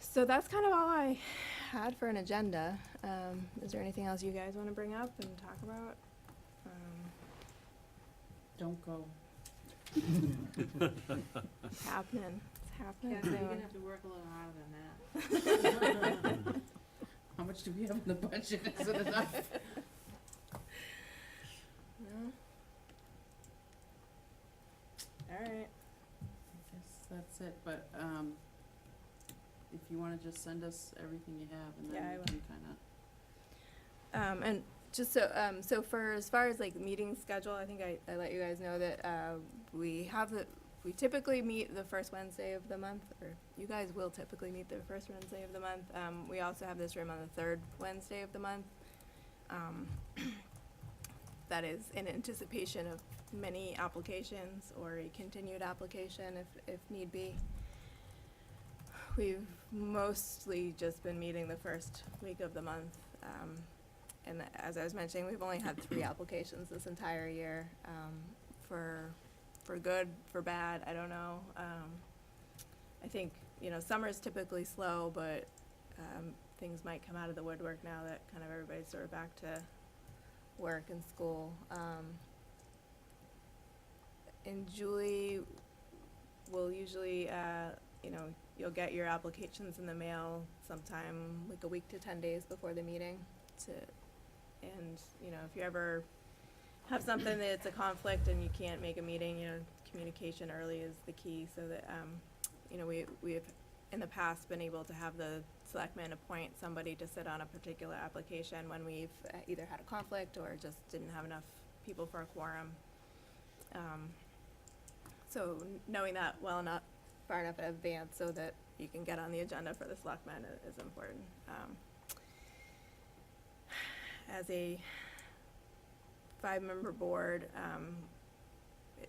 So that's kind of all I had for an agenda. Um, is there anything else you guys want to bring up and talk about? Um, Don't go. it's happening. It's Yeah, happening you're gonna soon. have to work a little harder than that. How much do we have in the budget? Is it enough? No? All right. I guess that's it, but, um, if you wanna just send us everything you have and Yeah, I then will. we can kinda, Um, and just so, um, so for as far as like meeting schedule, I think I, I let you guys know that, uh, we have the, we typically meet the first Wednesday of the month, or you guys will typically meet the first Wednesday of the month. Um, we also have this room on the third Wednesday of the month. Um, that is in anticipation of many applications or a continued application if, if need be. We've mostly just been meeting the first week of the month. Um, and as I was mentioning, we've only had three applications this entire year, um, for, for good, for bad, I don't know. Um, I think, you know, summer's typically slow, but, um, things might come out of the woodwork now that kind of everybody's sort of back to work and school. Um, and Julie will usually, uh, you know, you'll get your applications in the mail sometime like a week to ten days before the meeting to, and, you know, if you ever have something that's a conflict and you can't make a meeting, you know, communication early is the key so that, um, you know, we, we have in the past been able to have the selectmen appoint somebody to sit on a particular application when we've uh, either had a conflict or just didn't have enough people for a quorum. Um, so kn- knowing that well enough, far enough in advance so that you can get on the agenda for the selectmen i- is important. Um, as a five-member board, um, it-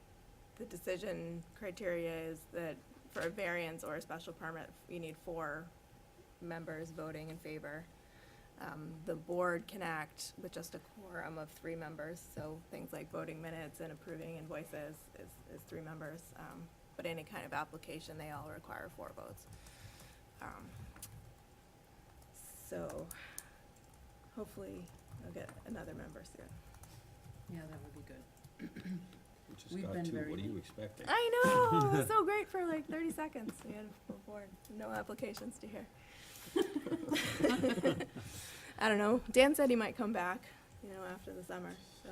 the decision criteria is that for a variance or a special permit, you need four members voting in favor. Um, the board can act with just a quorum of three members, so things like voting minutes and approving invoices is, is three members. Um, but any kind of application, they all require four votes. Um, So, hopefully, I'll get another member soon. yeah, that would be good. We We've just got been two, very what are you expecting? Uh, I know, it was so great for like thirty seconds, we had a full board, no applications to hear. I don't know, Dan said he might come back, you know, after the summer, so,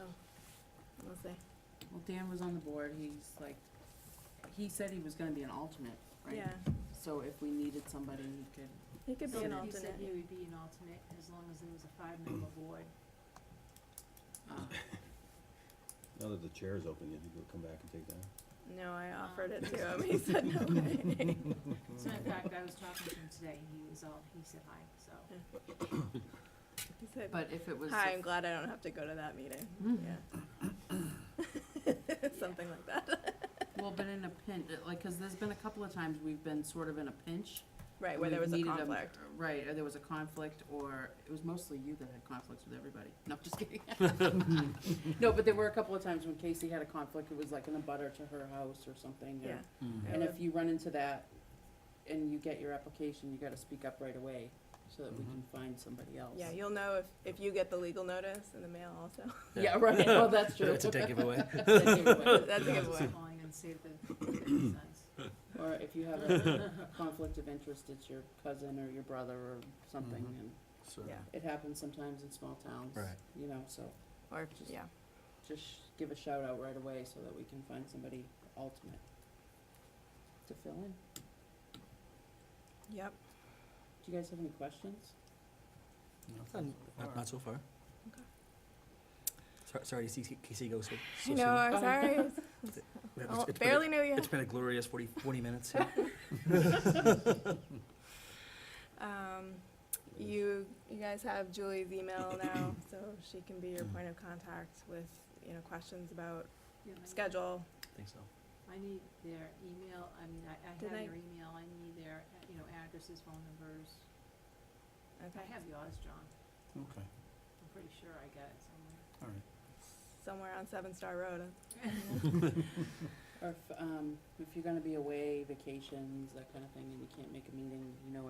we'll see. Well, Dan was on the board, he's like, he said he was gonna be an alternate, right? Yeah, So if we needed somebody, he could, he could be an He said he alternate. would be an alternate as long as there was a five-member board. uh, Now that the chair is open, you think we'll come back and take that? No, I offered Ah. it to him, he said no way. So in fact, I was talking to him today, and he was all, he said hi, so. He said, but if it was. hi, a- I'm glad I don't have to go to that meeting, Mhm. yeah. Something like that, Well, but in a pinch, like, cause there's been a couple of times we've been sort of in a pinch. right, where there We've was a needed 'em, conflict. Right, or there was a conflict, or it was mostly you that had conflicts with everybody. No, I'm just kidding. No, but there were a couple of times when Casey had a conflict, it was like in a butter to her house or something. or- Yeah. Mm-hmm. And if you run into that and you get your application, you gotta speak up right away so that we Mm-hmm. can find somebody else. Yeah, you'll know if, if you get the legal notice in the mail also. Yeah, right, well, that's true. That's a dead giveaway. That's a I was giveaway. calling and say the size. Or if you have a conflict of interest, it's your cousin or your brother or something, Mhm. and Yeah, it happens sometimes in small towns. Right. You know, so. or, if- Just- yeah, just sh- give a shout out right away so that we can find somebody ultimate to fill in. yep, Do you guys have any questions? Not, not so far. Okay. Sorry, sorry to see K- Casey go so, so you soon. know, I'm Oh. sorry, We have- Oh, it's been a- barely knew you. It's been a glorious 40, 40 minutes. yeah. Um, It is. you, you guys have Julie's email now, so she can be your point of contact with, you know, questions about Yeah, I- schedule. I think so. I need their email, I mean, I, I have Did I- their email, I need their, uh, you know, addresses, phone numbers. I Okay, have yours, John. Okay. I'm pretty sure I got it somewhere. somewhere on Seven Star Road. Or if, um, if you're gonna be away, vacations, that kind of thing, and you can't make a meeting, you know